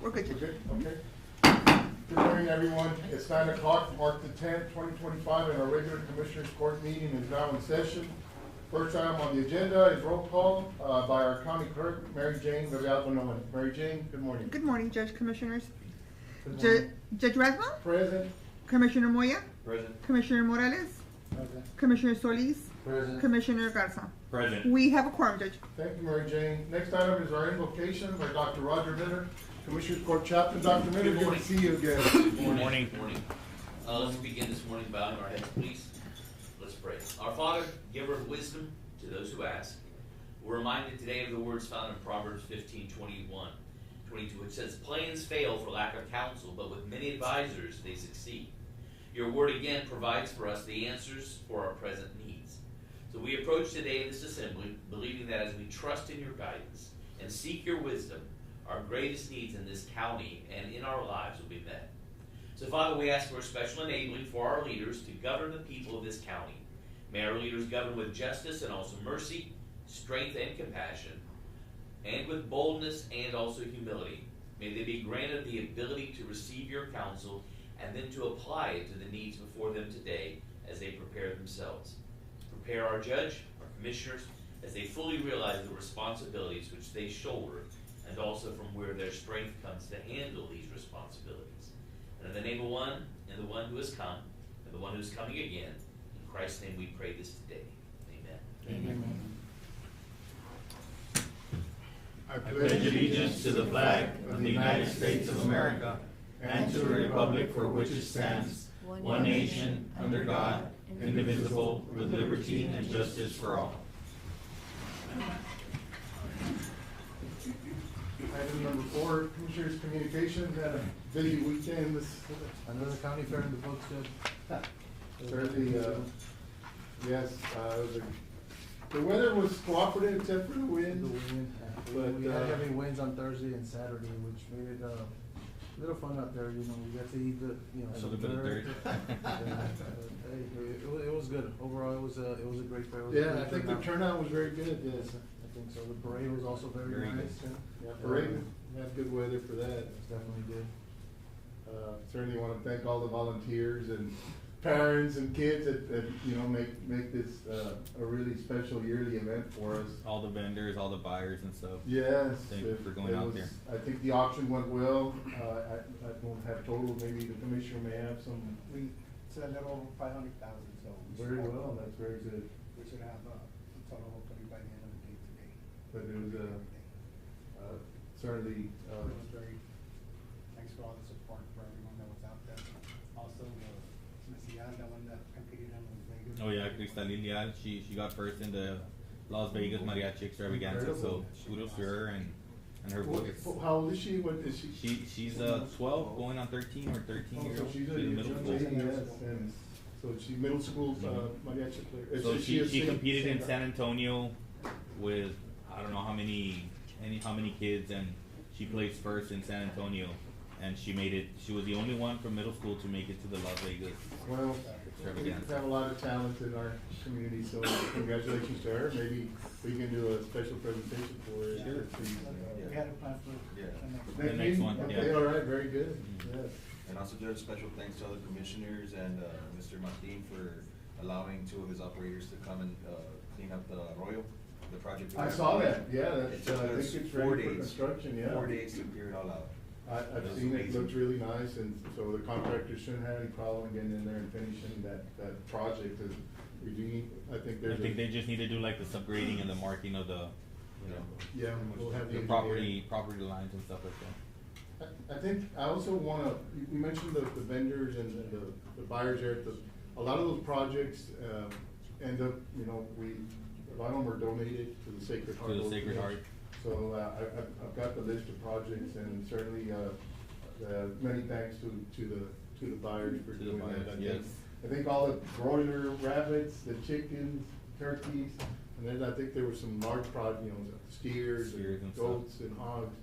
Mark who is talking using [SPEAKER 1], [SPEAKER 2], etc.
[SPEAKER 1] We're good, Judge.
[SPEAKER 2] Okay, okay. Good morning, everyone. It's nine o'clock, March the tenth, twenty twenty-five, and our regular Commissioners Court meeting is now in session. First item on the agenda is roll call uh, by our county clerk, Mary Jane Villalba Nolan. Mary Jane, good morning.
[SPEAKER 1] Good morning, Judge Commissioners.
[SPEAKER 2] Good
[SPEAKER 1] Ju-
[SPEAKER 2] morning.
[SPEAKER 1] Judge Rathma,
[SPEAKER 2] Present.
[SPEAKER 1] Commissioner Moya,
[SPEAKER 3] Present.
[SPEAKER 1] Commissioner Morales, Commissioner Solis,
[SPEAKER 2] Present.
[SPEAKER 1] Commissioner Garza.
[SPEAKER 3] Present.
[SPEAKER 1] We have a quorum, Judge.
[SPEAKER 2] Thank you, Mary Jane. Next item is our invocation by Dr. Roger Minner, Commissioners Court Chaplain. Dr. Minner,
[SPEAKER 4] Good
[SPEAKER 2] good
[SPEAKER 4] morning.
[SPEAKER 2] to see you again.
[SPEAKER 4] Morning. Morning. Uh, let's begin this morning bowing our heads, please. Let's pray. Our Father, giver of wisdom to those who ask, we're reminded today of the words found in Proverbs 15, 21, 22, which says, Plans fail for lack of counsel, but with many advisors they succeed. Your word again provides for us the answers for our present needs. So we approach today this assembly believing that as we trust in your guidance and seek your wisdom, our greatest needs in this county and in our lives will be met. So, Father, we ask for a special enabling for our leaders to govern the people of this county. May our leaders govern with justice and also mercy, strength and compassion, and with boldness and also humility. May they be granted the ability to receive your counsel and then to apply it to the needs before them today as they prepare themselves. Prepare our judge, our commissioners, as they fully realize the responsibilities which they shoulder and also from where their strength comes to handle these responsibilities. And in the name of one, and the one who has come, and the one who is coming again, in Christ's name we pray this today. Amen.
[SPEAKER 2] I
[SPEAKER 5] pledge allegiance to the flag of the United States of America and to the republic for which it stands, one nation, under God, indivisible, with liberty and justice for all.
[SPEAKER 2] Item number four, Commissioners Communications, had a busy weekend this,
[SPEAKER 3] Another county fair in the books, Judge?
[SPEAKER 2] Thursday, uh, yes, uh, it was a- the weather was cooperative except for the
[SPEAKER 3] The
[SPEAKER 2] wind.
[SPEAKER 3] wind.
[SPEAKER 2] But,
[SPEAKER 3] We had
[SPEAKER 2] uh,
[SPEAKER 3] heavy winds on Thursday and Saturday, which made it, uh, a little fun out there, you know, we got to eat the, you know.
[SPEAKER 5] A
[SPEAKER 3] some
[SPEAKER 5] little bit of dirt.
[SPEAKER 3] Yeah, but, Hey, it wa- it was good, overall, it was a, it was a great fair. It was a
[SPEAKER 2] Yeah,
[SPEAKER 3] great
[SPEAKER 2] I think the
[SPEAKER 3] turnout.
[SPEAKER 2] turnout was very good, yes.
[SPEAKER 3] I think so, the parade was also very
[SPEAKER 5] Very
[SPEAKER 3] nice,
[SPEAKER 5] good.
[SPEAKER 2] Yeah,
[SPEAKER 3] yeah.
[SPEAKER 2] parade,
[SPEAKER 3] Uh,
[SPEAKER 2] we had good weather for that.
[SPEAKER 3] it's Definitely good.
[SPEAKER 2] Uh, Certainly want to thank all the volunteers and parents and kids that, that, you know, make, make this, uh, a really special yearly event for us.
[SPEAKER 5] All the vendors, all the buyers and stuff.
[SPEAKER 2] Yes.
[SPEAKER 5] Thank you
[SPEAKER 2] it-
[SPEAKER 5] for going
[SPEAKER 2] it
[SPEAKER 5] out
[SPEAKER 2] was- I think the auction went well. Uh, I, I don't have total, maybe the commissioner may have some.
[SPEAKER 3] We said a little over five hundred thousand, so.
[SPEAKER 2] Very well, that's very good.
[SPEAKER 3] We should have, uh, total hopefully by the end of the day today.
[SPEAKER 2] But it was, uh, uh, certainly, uh,
[SPEAKER 6] It was very, thanks for all the support for everyone that was out there. Also, uh, Miss Yan, the one that competed in Las Vegas.
[SPEAKER 5] Oh yeah, Cristal Lilia, she, she got first in the Las Vegas Mariachi Extravaganza, so
[SPEAKER 2] Incredible.
[SPEAKER 5] kudos to her and, and her
[SPEAKER 2] what-
[SPEAKER 5] boys.
[SPEAKER 2] wh- how old is she? What is she?
[SPEAKER 5] She, she's uh twelve, going on thirteen or
[SPEAKER 2] Oh,
[SPEAKER 5] thirteen years
[SPEAKER 2] so
[SPEAKER 5] old.
[SPEAKER 2] she's a
[SPEAKER 5] in
[SPEAKER 2] young
[SPEAKER 5] middle
[SPEAKER 2] lady,
[SPEAKER 5] school.
[SPEAKER 2] yes, and so she middle school, uh,
[SPEAKER 5] Mhm.
[SPEAKER 2] mariachi player. Uh,
[SPEAKER 5] So she,
[SPEAKER 2] is
[SPEAKER 5] she
[SPEAKER 2] sing-
[SPEAKER 5] competed in
[SPEAKER 2] singer.
[SPEAKER 5] San Antonio with, I don't know how many, any, how many kids and she placed first in San Antonio. And she made it, she was the only one from middle school to make it to the Las Vegas.
[SPEAKER 2] Well, we
[SPEAKER 5] Extravaganza.
[SPEAKER 2] have a lot of talent in our community, so congratulations to her. Maybe we can do a special presentation for her.
[SPEAKER 5] Sure.
[SPEAKER 2] Please, uh,
[SPEAKER 6] We had a plan for
[SPEAKER 7] Yeah.
[SPEAKER 6] the next.
[SPEAKER 5] The next one,
[SPEAKER 2] Okay,
[SPEAKER 5] yeah.
[SPEAKER 2] all right, very good,
[SPEAKER 5] Mhm.
[SPEAKER 2] yes.
[SPEAKER 7] And also Judge, special thanks to all the commissioners and, uh, Mr. Martin for allowing two of his operators to come and, uh, clean up the Arroyo, the project. we
[SPEAKER 2] I
[SPEAKER 7] have
[SPEAKER 2] saw
[SPEAKER 7] going.
[SPEAKER 2] that, yeah,
[SPEAKER 7] It
[SPEAKER 2] that's,
[SPEAKER 7] took
[SPEAKER 2] uh, I
[SPEAKER 7] us
[SPEAKER 2] think it's
[SPEAKER 7] four
[SPEAKER 2] ready for
[SPEAKER 7] days-
[SPEAKER 2] construction, yeah.
[SPEAKER 7] Four days to clear it all out.
[SPEAKER 2] I, I've
[SPEAKER 7] That's
[SPEAKER 2] seen it,
[SPEAKER 7] amazing.
[SPEAKER 2] looked really nice, and so the contractor shouldn't have any problem getting in there and finishing that, that project, and we do, need- I think
[SPEAKER 5] I
[SPEAKER 2] there's.
[SPEAKER 5] think
[SPEAKER 2] a-
[SPEAKER 5] they just need to do like the subgrading and the marking of the, you know,
[SPEAKER 2] Yeah, we'll have the.
[SPEAKER 5] the
[SPEAKER 2] engineer.
[SPEAKER 5] property, property lines and stuff like that.
[SPEAKER 2] I- I think, I also wanna, you you mentioned the, the vendors and the, the buyers there, the, a lot of those projects, um, end up, you know, we, a lot of them are donated to the Sacred Heart.
[SPEAKER 5] To the Sacred Heart.
[SPEAKER 2] So, uh, I, I've, I've got the list of projects and certainly, uh, uh, many thanks to, to the, to the buyers for
[SPEAKER 5] To the
[SPEAKER 2] doing that.
[SPEAKER 5] buyers,
[SPEAKER 2] I think-
[SPEAKER 5] yes.
[SPEAKER 2] I think all the broiler rabbits, the chickens, turkeys, and then I think there were some large prod, you know, steers and
[SPEAKER 5] Steers and stuff.
[SPEAKER 2] goats and hogs.